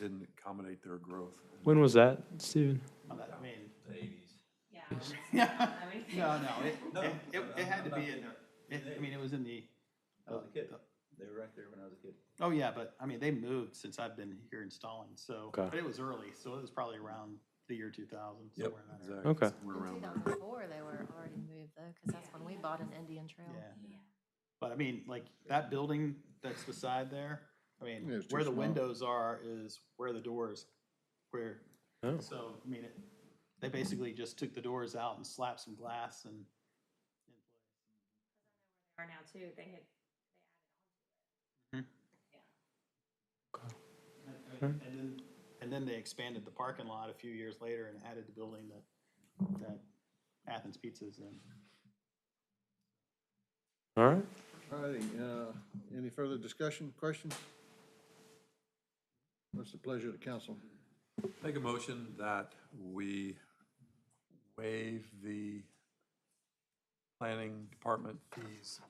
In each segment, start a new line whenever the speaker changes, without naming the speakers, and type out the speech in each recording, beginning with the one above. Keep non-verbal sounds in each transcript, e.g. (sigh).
didn't accommodate their growth.
When was that, Steven?
I mean,
Yeah.
(laughs) yeah,
I mean,
no,
(laughs)
no, it,
No,
it- it, it had to
I'm
be
not-
in the, it, I mean, it was in the.
I was a kid.
uh,
They were right there when I was a kid.
Oh, yeah, but I mean, they moved since I've been here installing, so,
Okay.
but it was early, so it was probably around the year two thousand,
Yep,
somewhere in that
exactly.
area.
Okay.
We're
In
around there.
2004, they were already moved though, because that's when we bought an Indian Trail.
Yeah, but I mean, like, that building that's beside there, I
Yeah,
mean,
it's too
where the
small.
windows are is where the doors, where,
Oh.
so, I mean, it, they basically just took the doors out and slapped some glass and.
Are now too, they had,
And then, and then they expanded the parking lot a few years later and added the building that, that Athens Pizza is in.
All right.
All righty, uh, any further discussion, questions? What's the pleasure of the council?
Make a motion that we waive the planning department fees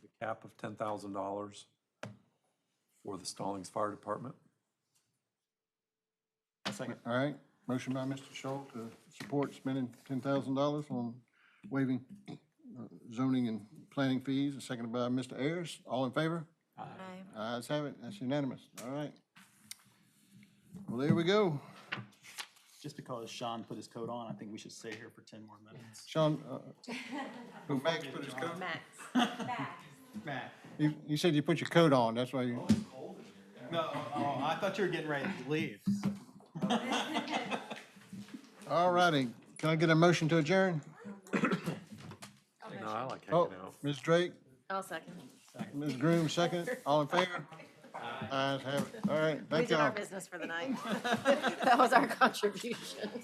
with a cap of ten thousand dollars for the Stallings Fire Department.
Second.
All right, motion by Mr. Schultz to support spending ten thousand dollars on waiving uh, zoning and planning fees, and seconded by Mr. Ayers. All in favor?
Aye.
Ayes have it, that's unanimous, all right. Well, there we go.
Just because Sean put his coat on, I think we should stay here for ten more minutes.
Sean, uh, Max put his coat,
Max.
(laughs)
back.
Matt.
you, you said you put your coat on, that's why you,
No, oh, I thought you were getting ready to leave.
(laughs)
all righty. Can I get a motion to adjourn?
No, I like
Oh,
hanging out.
Ms. Drake?
I'll second.
Ms. Groom, second. All in favor? Ayes have it. All right,
We
thank
did our
y'all.
(laughs) business for the night. That was our contribution.